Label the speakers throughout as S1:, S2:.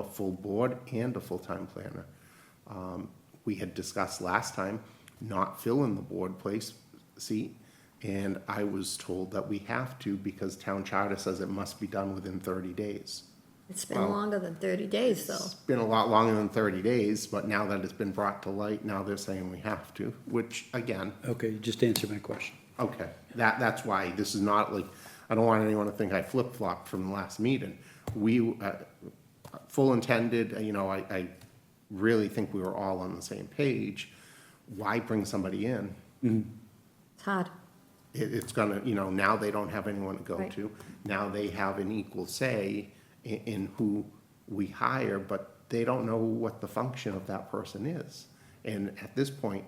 S1: a full board and a full-time planner. Um, We had discussed last time not filling the board place seat, and I was told that we have to because town charter says it must be done within thirty days.
S2: It's been
S1: Well-
S2: longer than thirty days,
S1: It's
S2: though.
S1: been a lot longer than thirty days, but now that it's been brought to light, now they're saying we have to, which, again,
S3: Okay, you just answered my question.
S1: Okay, that, that's why, this is not like, I don't want anyone to think I flip-flopped from the last meeting. We, uh, full intended, uh, you know, I, I really think we were all on the same page. Why bring somebody in?
S2: It's hard.
S1: It, it's gonna, you know, now they don't have anyone to go
S2: Right.
S1: to. Now they have an equal say in, in who we hire, but they don't know what the function of that person is. And at this point,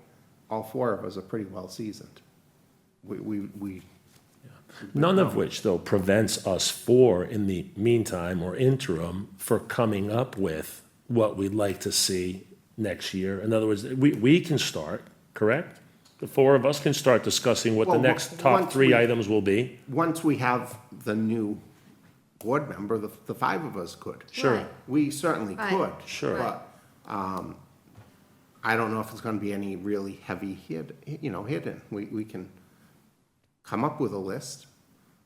S1: all four of us are pretty well seasoned. We, we, we
S4: None of which, though, prevents us for, in the meantime or interim, for coming up with what we'd like to see next year. In other words, we, we can start, correct? The four of us can start discussing what the
S1: Well, on-
S4: next top
S1: once we-
S4: three items will be.
S1: once we have the new board member, the, the five of us could.
S4: Sure.
S2: Right.
S1: We certainly
S2: Right.
S1: could.
S4: Sure.
S1: But, um, I don't know if it's gonna be any really heavy hid, you know, hidden. We, we can come up with a list.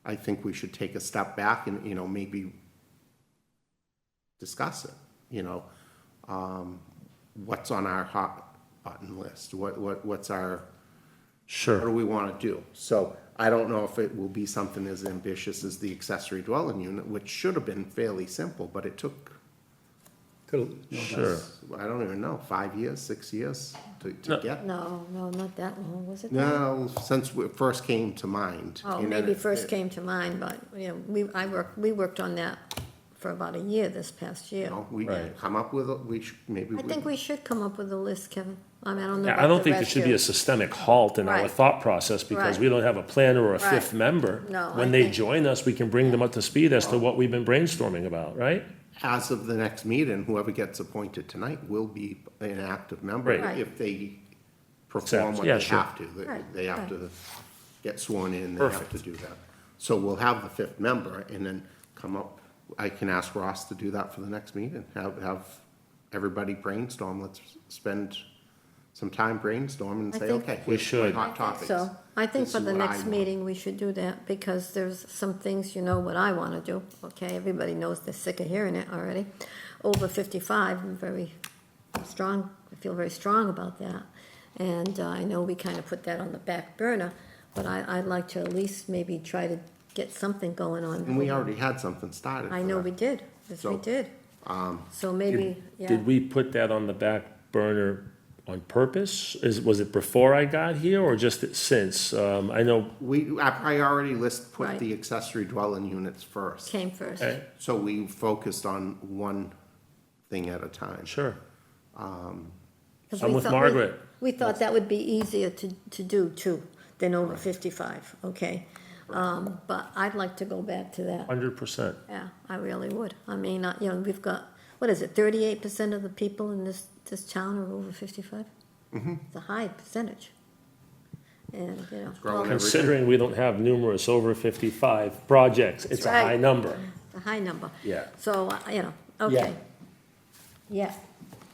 S1: I think we should take a step back and, you know, maybe discuss it, you know? Um, what's on our hot button list? What, what, what's our, what do
S4: Sure.
S1: we want to do? So I don't know if it will be something as ambitious as the accessory dwelling unit, which should have been fairly simple, but it took,
S3: Could-
S4: Sure.
S1: I don't even know, five years, six years to, to
S4: No.
S1: get?
S2: No, no, not that long, was it?
S1: No, since it first came to mind.
S2: Oh,
S1: and
S2: maybe
S1: it-
S2: first came to mind, but, you know, we, I worked, we worked on that for about a year this past year.
S1: You know, we
S4: Right.
S1: come up with, a- we should, maybe.
S2: I think we should come up with a list, Kevin. I mean, I don't know
S4: I don't
S2: about the
S4: think there
S2: rest
S4: should be a
S2: of.
S4: systemic halt in our
S2: Right.
S4: thought process because
S2: Right.
S4: we don't have a planner or a fifth
S2: Right.
S4: member.
S2: No, I
S4: When they
S2: think-
S4: join us, we can bring them up to speed as to what we've been brainstorming about, right?
S1: As of the next meeting, whoever gets appointed tonight will be an active member
S4: Right.
S2: Right.
S1: if they perform
S4: Accept,
S1: what
S4: yeah,
S1: they
S4: sure.
S1: have to. They-
S2: Right,
S1: They have
S2: right.
S1: to get sworn in, they have to
S4: Perfect.
S1: do that. So we'll have the fifth member and then come up, I can ask Ross to do that for the next meeting. Have, have everybody brainstorm, let's spend some time brainstorming and
S2: I
S1: say,
S2: think-
S1: okay.
S4: We
S1: here's my
S4: should.
S1: Hot topics.
S2: So, I think
S1: This
S2: for
S1: is
S2: the
S1: what I
S2: next
S1: want.
S2: meeting, we should do that, because there's some things, you know what I wanna do, okay? Everybody knows they're sick of hearing it already. Over fifty-five, I'm very strong, I feel very strong about that. And uh, I know we kinda put that on the back burner, but I, I'd like to at least maybe try to get something going on.
S1: And we already had something started.
S2: I
S1: for
S2: know
S1: that.
S2: we did, yes, we
S1: So, um,
S2: did. So maybe, yeah.
S4: Did we put that on the back burner on purpose? Is, was it before I got here or just since? Um, I know,
S1: We, our priority list put
S2: Right.
S1: the accessory dwelling units first.
S2: Came first.
S4: eh,
S1: So we focused on one thing at a time.
S4: sure,
S2: 'Cause
S4: I'm
S2: we
S4: with
S2: thought we-
S4: Margaret.
S2: We thought that would be easier to, to do too, than over fifty-five, okay? Um, but I'd like to go back to that,
S4: hundred percent.
S2: yeah, I really would. I mean, I- you know, we've got, what is it, thirty-eight percent of the people in this, this town are over 55
S4: Mm-hmm.
S2: It's a high percentage. And, you know.
S1: growing
S2: well,
S1: every-
S4: Considering we don't have numerous over fifty-five projects, it's a
S2: right.
S4: high number.
S2: It's a high number.
S4: Yeah.
S2: So, uh, you know, okay. Yeah,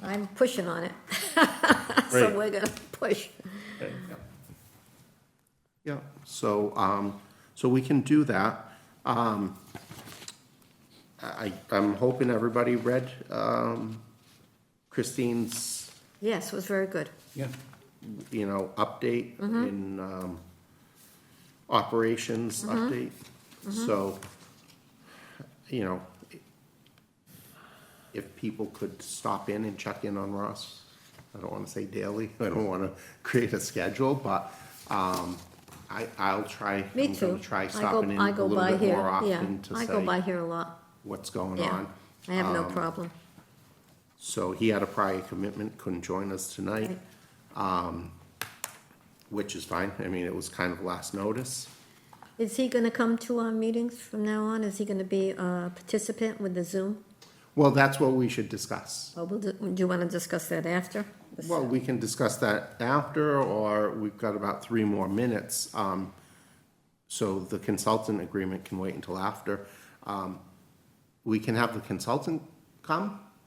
S2: I'm pushing on it. So
S4: Great.
S2: we're gonna push.
S1: Yeah, so, um, so we can do that. Um, I, I'm hoping everybody read, um, Christine's,
S2: Yes, it was very good.
S3: Yeah,
S1: you know, update
S2: Mm-hmm.
S1: in, um, operations
S2: Mm-hmm.
S1: update. So, you know, if people could stop in and check in on Ross, I don't wanna say daily, I don't wanna create a schedule, but, um, I, I'll try.
S2: Me
S1: I'm
S2: too.
S1: gonna try
S2: I go-
S1: stopping in
S2: I
S1: a
S2: go
S1: little
S2: by
S1: bit
S2: here,
S1: more
S2: yeah.
S1: often to
S2: I go by
S1: say
S2: here a lot,
S1: what's going
S2: yeah.
S1: on. Um,
S2: I have no problem.
S1: So he had a prior commitment, couldn't join us tonight, um,
S2: Right.
S1: which is fine. I mean, it was kind of last notice.
S2: Is he gonna come to our meetings from now on? Is he gonna be a participant with the Zoom?
S1: Well, that's what we should discuss.
S2: Or will, do you wanna discuss that after?
S1: Well, we can discuss that after, or we've got about three more minutes. Um, so the consultant agreement can wait until after. Um, we can have the consultant come